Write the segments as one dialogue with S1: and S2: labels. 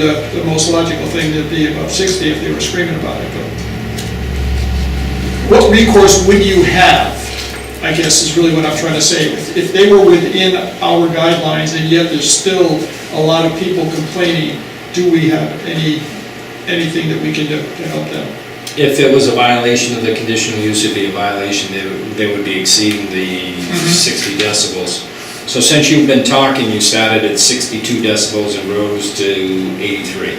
S1: The, the most logical thing to be above 60 if they were screaming about it, but. What recourse would you have, I guess is really what I'm trying to say. If- If they were within our guidelines and yet there's still a lot of people complaining, do we have any, anything that we can do to help them?
S2: If it was a violation of the conditional use, it'd be a violation, they would, they would be exceeding the sixty decibels. So since you've been talking, you started at sixty-two decibels and rose to eighty-three.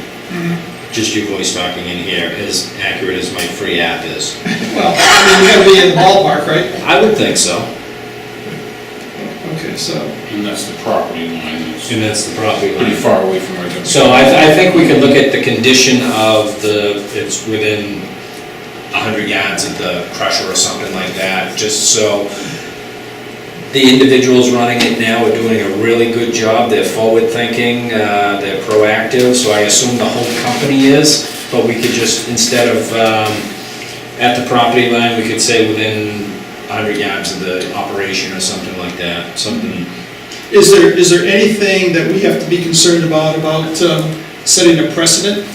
S2: Just your voice talking in here, as accurate as my free app is.
S1: Well, I mean, you gotta be in the ballpark, right?
S2: I would think so,
S1: Okay, so,
S3: And that's the property line, it's
S2: and that's the property
S3: pretty
S2: line.
S3: far away from where the.
S2: So I, I think we could look at the condition of the, it's within hundred yards of the crusher or something like that, just so the individuals running it now are doing a really good job, they're forward-thinking, uh, they're proactive, so I assume the whole company is, but we could just, instead of, um, at the property line, we could say within hundred yards of the operation or something like that, something
S1: is there, is there anything that we have to be concerned about, about um, setting a precedent?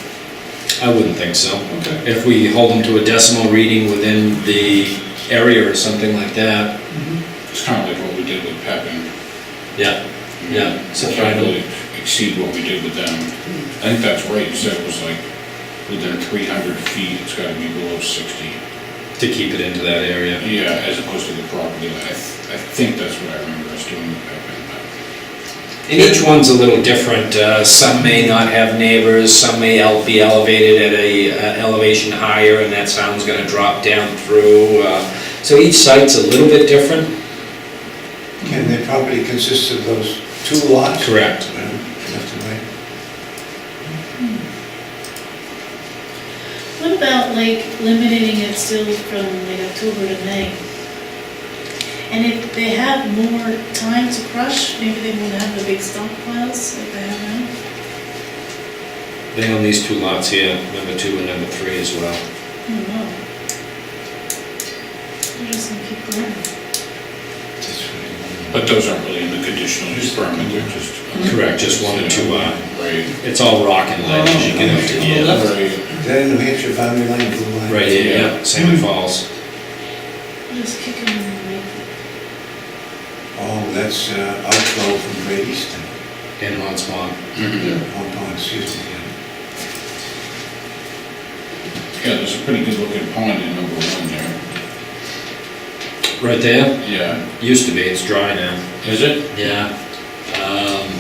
S2: I wouldn't think so.
S1: Okay.
S2: If we hold them to a decimal reading within the area or something like that,
S3: It's kind of like what we did with Pepin.
S2: yeah, yeah.
S3: So trying to exceed what we did with them. I think that's right, you said it was like within three hundred feet, it's gotta be below sixty.
S2: To keep it into that area.
S3: Yeah, as opposed to the property line, I, th- I think that's what I remember us doing with Pepin.
S2: And each one's a little different. Uh, Some may not have neighbors, some may el- be elevated at a uh, elevation higher, and that sound's gonna drop down through. uh, So each site's a little bit different.
S4: And the property consists of those two lots?
S2: Correct.
S4: Uh, Left and right.
S5: What about like limiting it still from like October to May? And if they have more time to crush, maybe they won't have the big stockpiles like they have now?
S2: They own these two lots here, number two and number three as well.
S5: I don't know. They're just gonna keep going.
S4: That's right.
S3: But those aren't really in the conditional use permit, they're just.
S2: Correct, just one or two, uh,
S3: Right.
S2: It's all rock and ledge as you get up to
S1: Oh,
S2: here.
S1: okay.
S3: Right.
S4: Is that a New Hampshire boundary line, blue line?
S2: Right here, yeah, Salmon Falls.
S5: They're Just kick them in the way.
S4: Oh, that's uh, outflow from Great Eastern,
S2: in Hunts Pond.
S3: Mhm.
S4: Hong Kong, excuse me. yeah.
S3: Yeah, there's a pretty good looking pond in number one there.
S2: Right there?
S3: Yeah.
S2: Used to be, it's dry now.
S3: Is it?
S2: Yeah. Um,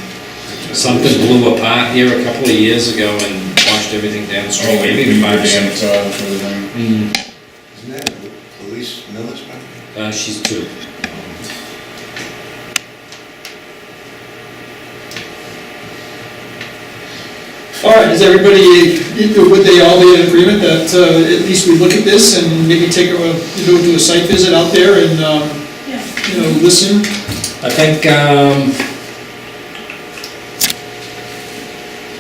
S2: Something blew apart here a couple of years ago and washed everything
S3: Oh,
S2: downstream.
S3: maybe we
S2: Maybe
S3: might
S2: five,
S3: be in
S2: six.
S3: the for the thing.
S2: Mm,
S4: Isn't that the police miller's property?
S2: uh, she's two.
S1: All right, is everybody, uh, would they all be in agreement that uh, at least we look at this and maybe take a, you know, do a site visit out there and, um,
S5: Yeah,
S1: you know, listen?
S2: I think, um,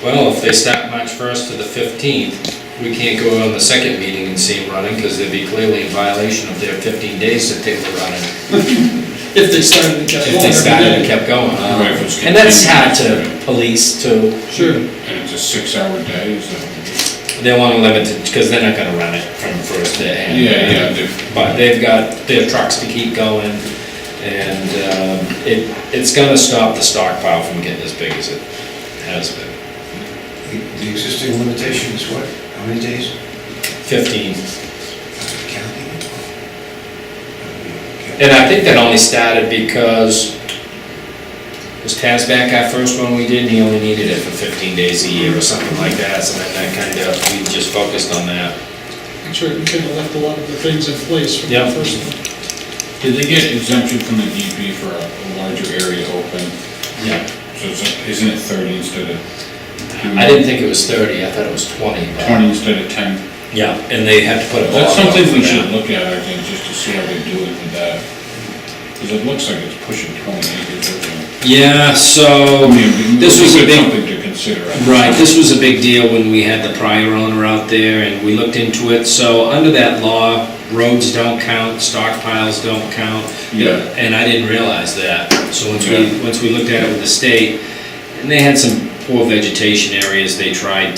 S2: well, if they start March first to the fifteenth, we can't go on the second meeting and see them running because they'd be clearly in violation of their fifteen days that they were running.
S1: If they started to catch
S2: If they
S1: on
S2: started and
S1: every day.
S2: kept going. uh,
S3: Right, if it's
S2: And that's hard to police too.
S1: Sure.
S3: And it's a six-hour day, so.
S2: They want to limit it, because they're not gonna run it from first day.
S3: Yeah, yeah, they've-
S2: But they've got their trucks to keep going, and um, it, it's gonna stop the stockpile from getting as big as it has been.
S4: The- The existing limitation is what? How many days?
S2: Fifteen,
S4: Counting? Oh,
S2: and I think that only started because, was Tazback our first one we did, and he only needed it for fifteen days a year or something like that, so then that kind of, we just focused on that.
S1: I'm sure we could have left a lot of the things in place from the
S2: Yeah.
S1: first one.
S3: Did they get exemption from the DP for a a larger area open?
S2: Yeah.
S3: So it's- isn't it 30 instead of?
S2: I didn't think it was thirty, I thought it was twenty. but-
S3: 20 instead of 10?
S2: Yeah, and they had to put a
S3: That's
S2: bar up
S3: something
S2: for
S3: we
S2: that.
S3: should look at, I think, just to see how they do it with that. Because it looks like it's pushing 20 acres. doesn't it?
S2: Yeah, so,
S3: I mean,
S2: this was a
S3: it's
S2: big,
S3: Something to consider. I think.
S2: right, this was a big deal when we had the prior owner out there and we looked into it. So under that law, roads don't count, stockpiles don't count.
S3: Yeah.
S2: And I didn't realize that. So once
S3: Yeah.
S2: we, once we looked at it with the state, and they had some poor vegetation areas, they tried